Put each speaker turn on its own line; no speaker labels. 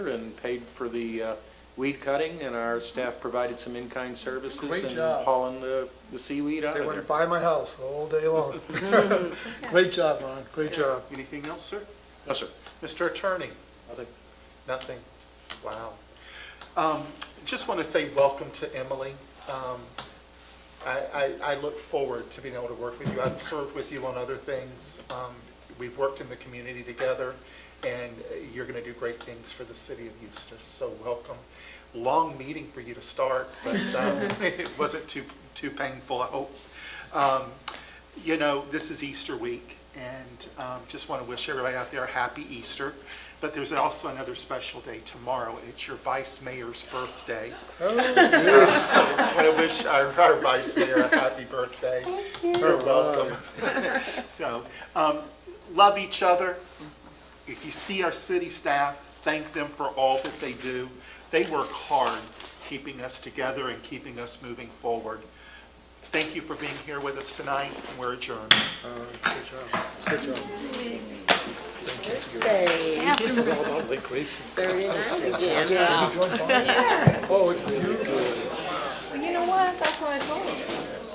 and paid for the uh, weed cutting, and our staff provided some in-kind services
Great
and
job.
hauling the the seaweed out
They
of
went
there.
by my house all day long. Great job, Ron, great job.
Anything else, sir?
No, sir.
Mr. Attorney?
Nothing.
Nothing? Wow. Um, Just want to say welcome to Emily. Um, I, I, I look forward to being able to work with you. I've served with you on other things. Um, We've worked in the community together, and you're going to do great things for the city of Eustis, so welcome. Long meeting for you to start, but um, it wasn't too, too painful, I hope. Um, You know, this is Easter week, and um, just want to wish everybody out there a happy Easter. But there's also another special day tomorrow. It's your vice mayor's birthday. I want to wish our, our vice mayor a happy birthday. You're welcome. So, um, love each other. If you see our city staff, thank them for all that they do. They work hard keeping us together and keeping us moving forward. Thank you for being here with us tonight. We're adjourned.
Good Uh, job, good job.
Hey,
Well done, Lake Gracie.
very nice. Yeah.
Oh, it's beautiful.
Well, you know what? That's what I told him.